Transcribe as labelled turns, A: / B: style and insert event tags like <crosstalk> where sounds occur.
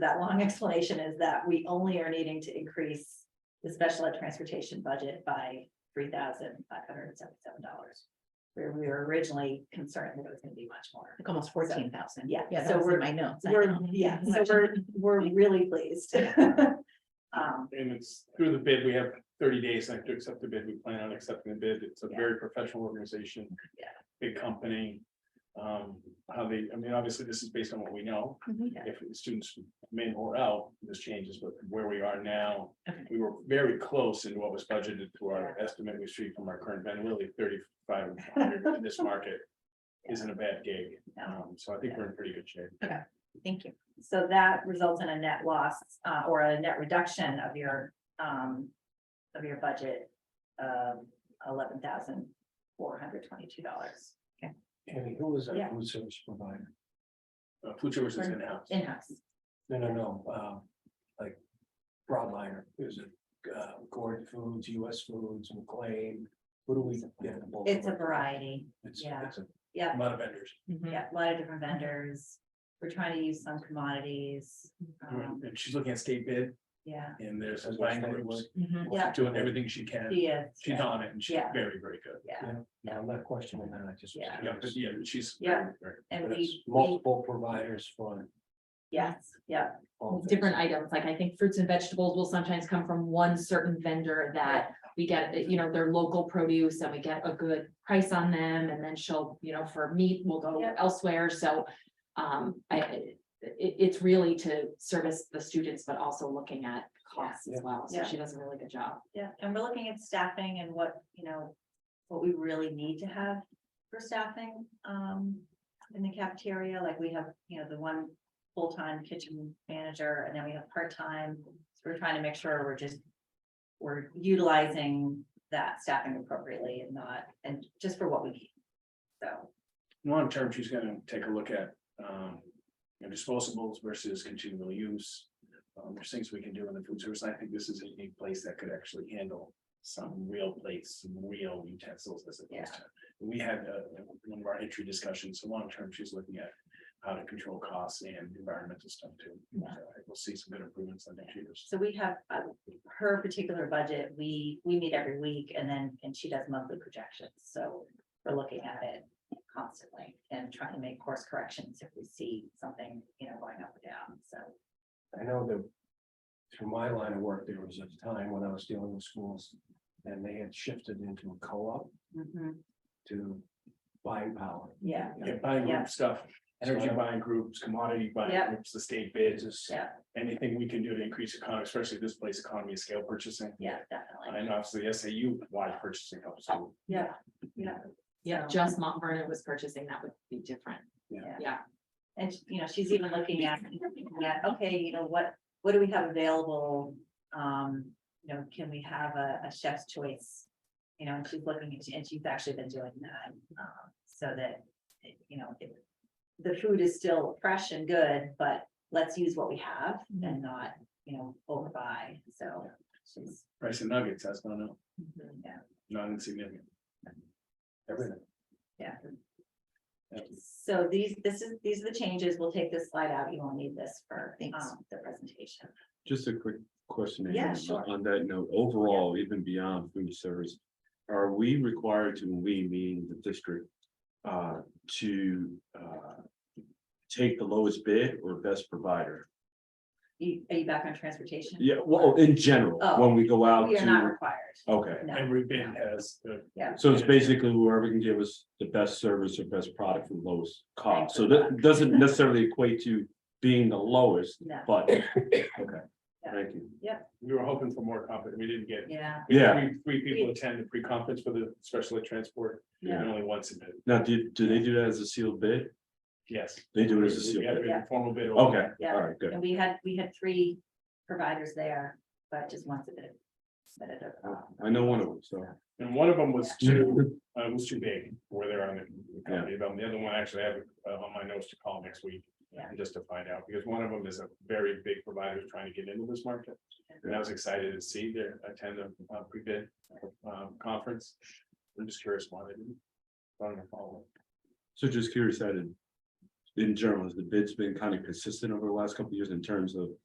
A: that long <laughs> explanation is that we only are needing to increase the special ed transportation budget by three thousand five hundred and seventy-seven dollars. Where we were originally concerned that it was gonna be much more.
B: Like almost fourteen thousand.
A: Yeah,
B: Yeah,
A: so
B: that was
A: we're-
B: in my notes. I
A: We're,
B: know.
A: yeah, so we're, we're really pleased. <laughs> Um,
C: And it's through the bid, we have thirty days like to accept the bid. We plan on accepting the bid. It's a
A: Yeah.
C: very professional organization.
A: Yeah.
C: Big company. Um, how they, I mean, obviously, this is based on what we know.
B: Mhm.
A: Yeah.
C: If students may or out, this changes, but where we are now.
B: Okay.
C: We were very close into what was budgeted to our
A: Yeah.
C: estimate we see from our current Ben Lilly thirty-five hundred in this market. Isn't a bad gig.
A: No.
C: Um, so I think we're in pretty good shape.
B: Thank you.
A: so that results in a net loss, uh, or a net reduction of your, um, of your budget of eleven thousand four hundred twenty-two dollars
D: Annie, who was
A: Yeah.
D: that food service provider?
C: Uh, food service is in-house.
A: in-house.
D: No, no, no, um, like broadliner, is it uh, Gordon Foods, US Foods, McLean? Who do we get the bulk? of
A: It's a
D: our-
A: variety,
D: It's,
A: yeah.
D: it's a
A: yeah.
D: lot of vendors.
A: Yeah, a lot of different
C: Mm-hmm.
A: vendors. We're trying to use some commodities. um,
C: And she's looking at state bid
A: Yeah,
C: and there's
D: That's
C: buying
D: what it
C: groups.
D: was.
B: Mhm.
A: Yeah.
C: doing everything she can.
A: she is.
C: She's on it and she's
A: Yeah.
C: very, very good.
A: Yeah,
D: Now, I'm not questioning that, I just. was
A: Yeah.
C: Yeah, but
D: curious.
C: yeah, she's.
A: Yeah.
C: very, very-
A: and
D: But
A: we,
D: it's
A: we,
D: Multiple providers for
A: yes, yeah,
D: all. things.
B: Different items, like I think fruits and vegetables will sometimes come from one certain vendor that we get, you know, their local produce and we get a good price on them and then she'll, you know, for meat, we'll go
A: Yep.
B: elsewhere, so. Um, I, it, it's really to service the students, but also looking at costs as well, so
A: Yeah.
B: she does a really good job.
A: yeah. And we're looking at staffing and what, you know, what we really need to have for staffing um in the cafeteria. Like we have, you know, the one full-time kitchen manager and then we have part-time. So we're trying to make sure we're just, we're utilizing that staffing appropriately and not, and just for what we need. So,
C: Long term, she's gonna take a look at um your disposables versus continual use. Um, there's things we can do in the food service. I think this is a unique place that could actually handle some real plates, some real utensils as
A: Yeah.
C: opposed to. We had uh one of our entry discussions, so long term, she's looking at how to control costs and environmental stuff too.
A: Yeah.
C: So I think We'll see some good improvements on next year's.
A: So we have, uh, her particular budget, we, we meet every week and then, and she does monthly projections, so we're looking at it constantly and trying to make course corrections if we see something, you know, going up or down, so.
D: I know that through my line of work, there was a time when I was dealing with schools and they had shifted into a co-op
A: Mm-hmm.
D: to buying power.
A: Yeah,
C: Yeah, buying
A: Yeah.
C: group stuff, energy
D: So I-
C: buying groups, commodity buying
A: Yeah.
C: groups, the state bids,
D: Business.
A: yeah,
C: anything we can do to increase economy, especially this place economy of scale purchasing.
A: yeah, definitely,
C: And obviously SAU wide purchasing helps too.
A: yeah, yeah.
B: Yeah,
A: So-
B: just Mont Vernon was purchasing, that would be different,
A: Yeah.
B: yeah.
A: And, you know, she's even looking
B: <laughs>
A: at, at, okay, you know, what, what do we have available? Um, you know, can we have a, a chef's choice? You know, and she's looking, into- and she's actually been doing that, um, so that, you know, it- the food is still fresh and good, but let's use what we have
E: Mm-hmm.
A: and not, you know, overbuy, so. she's
C: Price of nuggets, that's not, no-
B: Mhm.
C: not insignificant.
D: Everything.
A: So these, this is, these are the changes, we'll take this slide out, you won't need this for,
B: Thanks.
A: um, the presentation.
E: Just a quick question.
A: Yeah,
E: Ann,
A: sure. Oh,
E: On that note, overall, even beyond food service, are we required to, when we mean the district, uh, to, uh, take the lowest bid or best provider?
A: You, are you back on transportation?
E: Yeah, well, in general,
A: Oh.
E: when we go out
A: We are not
E: to,
A: required.
E: okay.
A: No.
C: Every bid has. uh, the-
A: Yeah.
E: So it's basically whoever can give us the best service or best product for the lowest cost. So that doesn't necessarily equate to being the lowest,
A: No,
E: but, okay, thank you.
C: We were hoping for more confidence. We didn't get.
A: yeah,
C: we had
E: Yeah.
C: three- Three people attend the pre-conference for the special ed transport and only one submitted.
E: Now, do, do they do that as a sealed bid?
C: Yes.
E: They do it as a sealed
C: We got
E: bid.
C: a Formal bid.
E: Okay,
A: Yeah.
E: all right, good.
A: and we had, we had three providers there, but just once a bit. submitted a-
E: I know one of them, so.
C: And one of them was too, Uh, it was too big, where they're on the the company, about the other one, I actually have it, uh, on my notes to call next week.
A: Yeah.
C: Just to find out, because one of them is a very big provider who's trying to get into this market, and I was excited to see their attend a uh, pre-bid um conference. I'm just curious why they didn't. But I'm gonna follow up.
E: So just curious, I didn't. in general, has the bid's been kind of consistent over the last couple of years in terms of